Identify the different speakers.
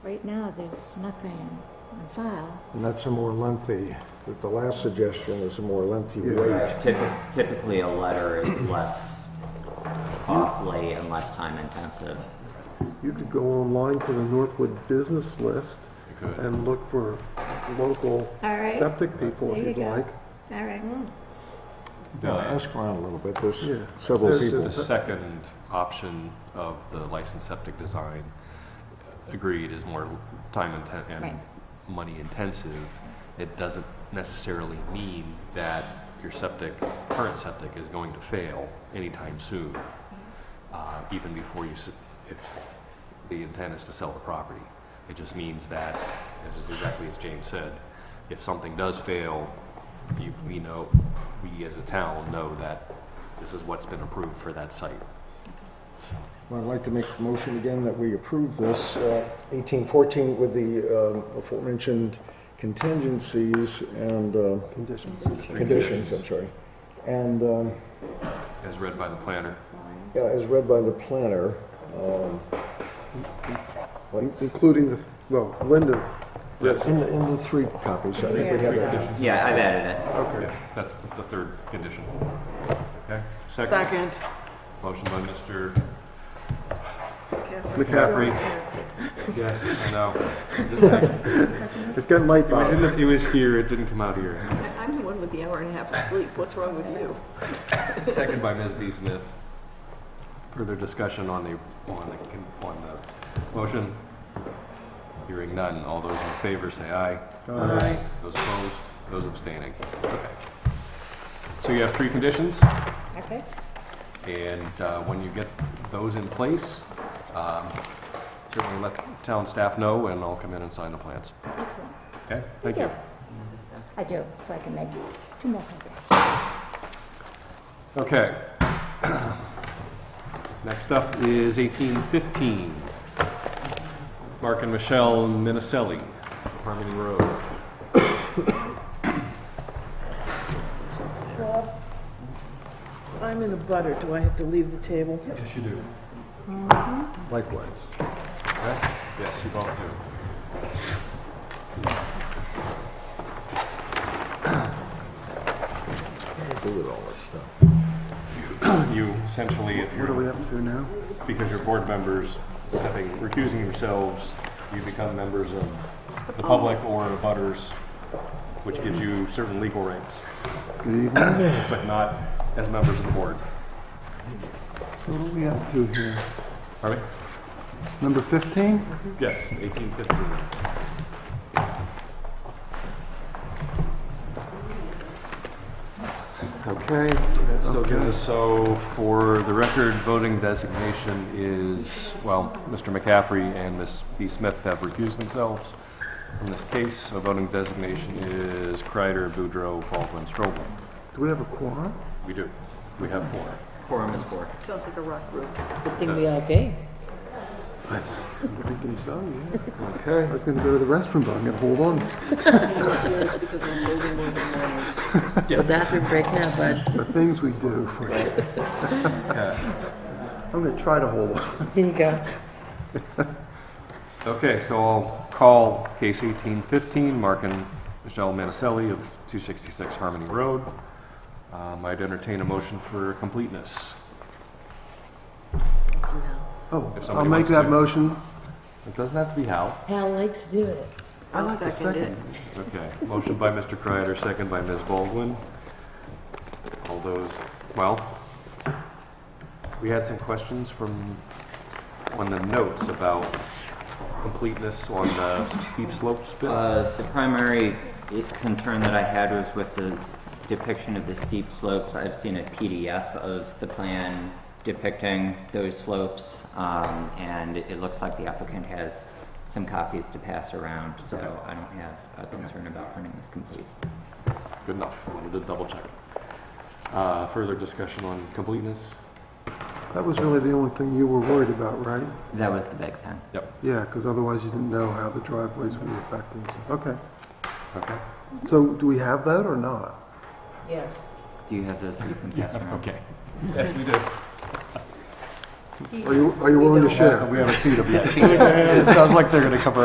Speaker 1: Right now, there's nothing on file.
Speaker 2: And that's a more lengthy, that the last suggestion is a more lengthy
Speaker 3: Yeah.
Speaker 2: wait.
Speaker 4: Typi- Typically, a letter is less costly and less time intensive.
Speaker 3: You could go online to the Northwood Business List and look for local
Speaker 1: All right.
Speaker 3: septic people if
Speaker 1: There you
Speaker 3: you'd
Speaker 1: go.
Speaker 3: like.
Speaker 1: All right.
Speaker 2: Now, ask around a little bit, there's
Speaker 3: Yeah.
Speaker 2: several
Speaker 3: There's-
Speaker 2: people.
Speaker 5: The second option of the licensed septic design, agreed, is more time inten and money intensive. It doesn't necessarily mean that your septic, current septic is going to fail anytime soon, uh, even before you, s- if the intent is to sell the property. It just means that, this is exactly as James said, if something does fail, you, we know, we as a town know that this is what's been approved for that site. So,
Speaker 2: Well, I'd like to make the motion again that we approve this, uh, 1814 with the um, aforementioned contingencies and uh,
Speaker 3: Condition.
Speaker 2: conditions, I'm sorry. And um,
Speaker 5: As read by the planner.
Speaker 2: yeah, as read by the planner,
Speaker 3: In- Including the, well, Linda,
Speaker 2: Yes. in the, in the three copies, I think we have that.
Speaker 4: Yeah, I've added it.
Speaker 3: okay.
Speaker 5: That's the third condition. Okay, second.
Speaker 6: Second.
Speaker 5: Motion by Mr.
Speaker 3: McCaffrey,
Speaker 5: McCaffrey. Yes, I know.
Speaker 3: it's getting late,
Speaker 5: It was in
Speaker 3: Bob.
Speaker 5: the, it was here, it didn't come out here.
Speaker 6: I'm the one with the hour and a half of sleep. What's wrong with you?
Speaker 5: Second by Ms. B. Smith. Further discussion on the, on the, con- on the motion? Hearing none. All those in favor say aye.
Speaker 3: Aye.
Speaker 5: Those opposed, those abstaining. Okay. So you have three conditions,
Speaker 1: Okay.
Speaker 5: and uh, when you get those in place, um, certainly let town staff know, and I'll come in and sign the plans.
Speaker 1: Excellent.
Speaker 5: Okay? Thank you.
Speaker 1: I do, so I can make two more copies.
Speaker 5: Okay. Next up is 1815. Mark and Michelle Minicelli, Harmony Road.
Speaker 6: I'm in a butter. Do I have to leave the table?
Speaker 5: Yes, you do.
Speaker 3: Likewise.
Speaker 5: Mm-hmm. Yes, you both do.
Speaker 2: Do with all this stuff.
Speaker 5: You essentially, if
Speaker 3: What are we
Speaker 5: you're,
Speaker 3: up to now?
Speaker 5: because you're board members stepping, recusing yourselves, you become members of the public or the butters, which gives you certain legal rights,
Speaker 3: Good evening.
Speaker 5: but not as members of the board.
Speaker 3: So what are we up to here?
Speaker 5: Harvey?
Speaker 3: Number 15?
Speaker 5: Yes, 1815.
Speaker 3: Okay.
Speaker 5: That still gives
Speaker 3: Okay.
Speaker 5: us, so for the record, voting designation is, well, Mr. McCaffrey and Ms. B. Smith have recused themselves from this case. So voting designation is Kreider, Boudreau, Baldwin, Strobel.
Speaker 3: Do we have a quorum?
Speaker 5: We do. We have four.
Speaker 4: Quorum is four.
Speaker 6: Sounds like a rock room.
Speaker 7: Thing we all gave.
Speaker 5: Nice.
Speaker 3: I'm thinking so, yeah.
Speaker 5: Okay.
Speaker 3: I was gonna go to the restroom, but I'm gonna hold on.
Speaker 6: because I'm moving more than mine is.
Speaker 7: The bathroom break now, bud.
Speaker 3: The things we do for you. I'm gonna try to hold on.
Speaker 7: Here you go.
Speaker 5: Okay, so I'll call case 1815, Mark and Michelle Manicelli of 266 Harmony Road. Um, I'd entertain a motion for completeness.
Speaker 3: Oh,
Speaker 5: If somebody
Speaker 3: I'll make
Speaker 5: wants
Speaker 3: that
Speaker 5: to.
Speaker 3: motion.
Speaker 5: It doesn't have to be Hal.
Speaker 7: Hal likes to do it.
Speaker 3: I like the
Speaker 6: second it.
Speaker 3: second.
Speaker 5: Okay, motion by Mr. Kreider, second by Ms. Baldwin. All those, well, we had some questions from, on the notes about completeness on the steep slopes bit.
Speaker 4: Uh, the primary i- concern that I had was with the depiction of the steep slopes. I've seen a PDF of the plan depicting those slopes, um, and it looks like the applicant has some copies to pass around, so I don't have a concern about printing this complete.
Speaker 5: Good enough, wanted to double check. Uh, Further discussion on completeness?
Speaker 3: That was really the only thing you were worried about, right?
Speaker 4: That was the big thing.
Speaker 5: Yep.
Speaker 3: Yeah, because otherwise you didn't know how the driveways would affect us. Okay.
Speaker 5: Okay.
Speaker 3: So do we have that or not?
Speaker 7: Yes.
Speaker 4: Do you have those that you can pass around?
Speaker 5: Okay. Yes, we do.
Speaker 3: Are you, are you willing to share?
Speaker 5: We haven't seen them yet. Sounds like they're gonna cover